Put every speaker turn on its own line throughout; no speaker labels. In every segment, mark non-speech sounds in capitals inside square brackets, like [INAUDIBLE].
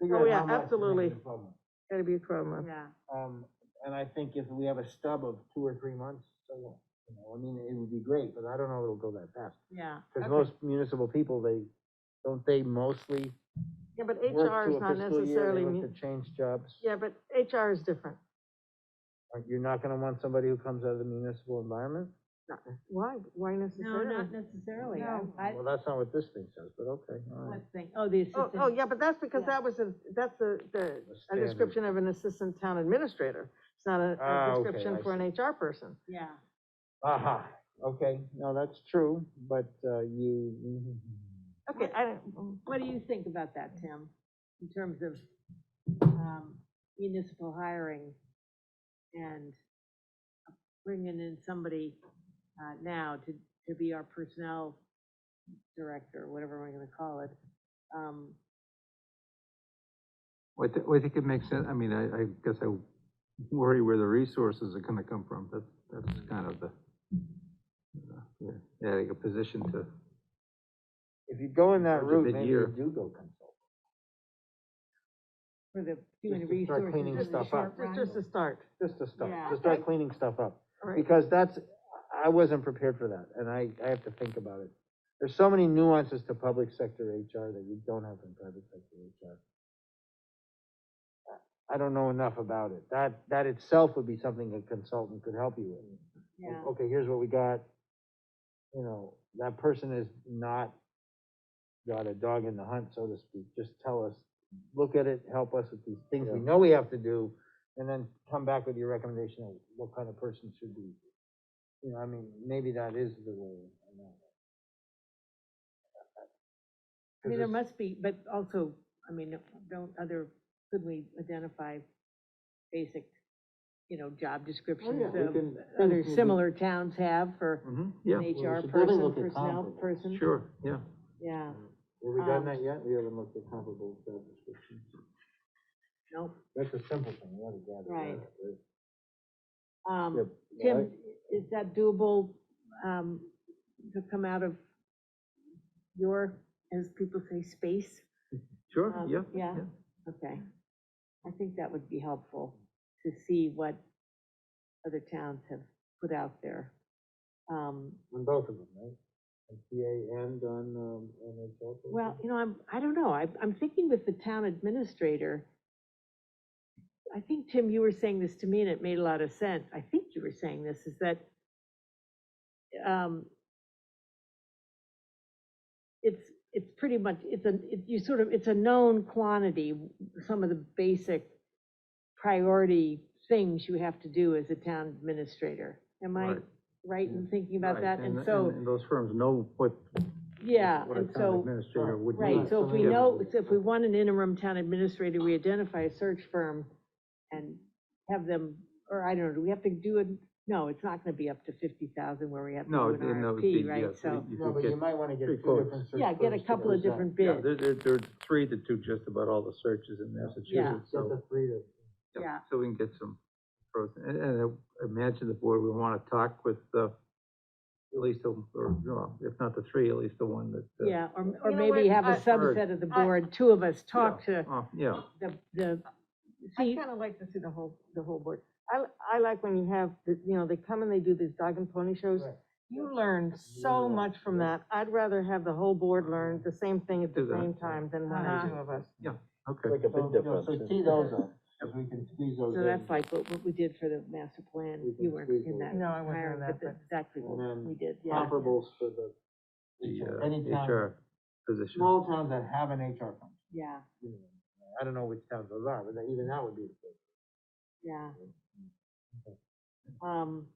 figure
Oh,
out
yeah,
how much. and make it
absolutely.
a problem.
Gotta be a twelve month.
Yeah,
Um, and I think if we have a stub of two or three months, so what? You know, I mean, it would be great, but I don't know it'll go that fast.
yeah.
Cause
okay.
most municipal people, they, don't they mostly
Yeah, but
work
HR
to
is
a
not
fiscal year,
necessarily,
they
mu-
look to change jobs?
yeah, but HR is different.
Aren't- You're not gonna want somebody who comes out of the municipal environment?
Not- Why, why
No,
necessarily?
not necessarily, I,
No.
I,
Well, that's not what this thing says, but okay, all right.
let's think, oh, the
Oh,
assistant.
oh, yeah, but that's because
Yeah.
that was a, that's a, the,
The
a
standard.
description of an assistant town administrator. It's not a-
Ah,
a
okay,
description
I
for an HR person.
Yeah,
Aha, okay, no, that's true, but, uh, you,
Okay, I
Oh.
don't,
what do you think about that, Tim, in terms of, um, municipal hiring? And bringing in somebody, uh, now to, to be our personnel director, whatever we're gonna call it. Um,
Well, I thi- well, I think it makes sense, I mean, I, I guess I worry where the resources are gonna come from, that's, that's kind of the, uh, yeah, adding a position to,
if you go in that
Or the
route, maybe you
mid-year.
do go consult.
for the human
Just to start
resources.
cleaning
and the
stuff up.
short run.
just to start,
Just to start,
Yeah.
to start cleaning stuff up.
all right.
Because that's, I wasn't prepared for that, and I, I have to think about it. There's so many nuances to public sector HR that you don't have in private sector HR. I don't know enough about it. That, that itself would be something a consultant could help you with.
Yeah.
Okay, here's what we got. You know, that person is not got a dog in the hunt, so to speak. Just tell us, look at it, help us with these things we
Yeah.
know we have to do, and then come back with your recommendation of what kind of person should be. You know, I mean, maybe that is the way. I don't know.
I mean, there
'Cause
must be, but also, I mean, don't other, could we identify basic, you know, job descriptions
Oh, yeah, we
of
can-
other
we can-
similar towns have for
Mhm,
an
yeah,
HR
should really
person,
look at
personnel
comparable.
person?
sure, yeah.
Yeah,
Have we done
um,
that yet? We haven't looked at comparable job descriptions.
no,
That's a simple thing, you gotta gather.
Right.
that, right? Yeah,
um,
yeah, I-
Tim, is that doable, um, to come out of your, as people say, space?
Sure,
Um,
yeah,
yeah.
yeah.
Okay, I think that would be helpful to see what other towns have put out there. Um,
On both of them, right? On PA and on, um, NHL.
Well, you know, I'm, I don't know, I, I'm thinking with the town administrator. I think, Tim, you were saying this to me and it made a lot of sense. I think you were saying this, is that, um, it's, it's pretty much, it's a, it- you sort of, it's a known quantity, some of the basic priority things you have to do as a town administrator. Am I
Right.
right in thinking about
Right,
that? And
th-
so,
and those firms know what.
yeah,
what a
and
town
so. uh,
Administrator would need.
Right, so if we
Yeah.
know, so if we want an interim town administrator, we identify a search firm and have them, or I don't know, do we have to do it? No, it's not gonna be up to fifty thousand where we have to
No,
do an
and that would be,
RFP,
yes,
right? So,
you- you
No,
could
but
get-
you might wanna get
three
two
quotes.
different. search
yeah, get a
firms to
couple of
present.
different
Yeah,
bids,
there, there, there are three to two just about all the searches in Massachusetts,
Get
so.
the three to.
Yeah. Yeah.
So we can get some, pros- and, and I imagine the board would want to talk with, uh, at least, the- or,
Hmm.
no, if not the three, at least the one that. uh,
yeah, or, or
You know
maybe
what,
have a
I-
subset of the
I-
board, two of us talk to
oh, Yeah,
the, the,
I
see,
kinda like to see the whole, the whole board. I, I like when you have, the you know, they come and they do these dog and pony shows.
Right.
You learn so
Yeah,
much from
yeah.
that. I'd rather have the whole board learn the same thing at the
Do that,
same time than one
Uh-huh.
or two of us.
okay.
Make a big difference. So tee those up, if we can squeeze those
so
in.
that's like what, what we did for the master plan,
We can
you weren't
squeeze
in
those
that.
in.
No, I wasn't in
hiring,
that,
but that's Exactly what
And then
we did, yeah.
Comparables for the,
The,
HR.
uh,
any town,
HR position.
small towns that have an HR function.
Yeah,
you know. I don't know which towns those are, but that- even that would be. the first.
yeah.
Mm-hmm.
Um,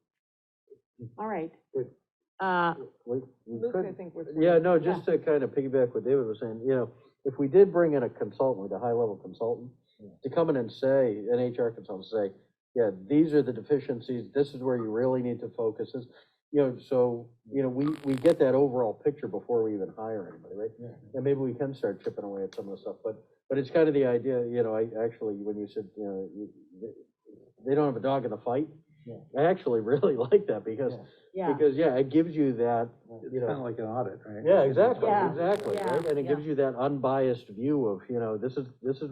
all right.
Good.
Uh,
We, we
Luke, I
could,
think we're.
yeah, no, just to kind of piggyback what David was saying, you know, if we did bring in a consultant, like a high-level consultant,
Yeah.
to come in and say, an HR consultant, say, yeah, these are the deficiencies, this is where you really need to focus, this, you know, so, you know, we, we get that overall picture before we even hire anybody, right?
Yeah.
And maybe we can start chipping away at some of the stuff, but, but it's kind of the idea, you know, I, actually, when you said, you know, you- they- they don't have a dog in the fight,
Yeah.
I actually [LAUGHS] really like that, because,
Yeah.
yeah,
because, yeah, it gives you that, you know.
Kind of like an audit, right?
Yeah, exactly,
Yeah,
exactly,
yeah,
right? And it gives you that unbiased view of, you know, this is, this is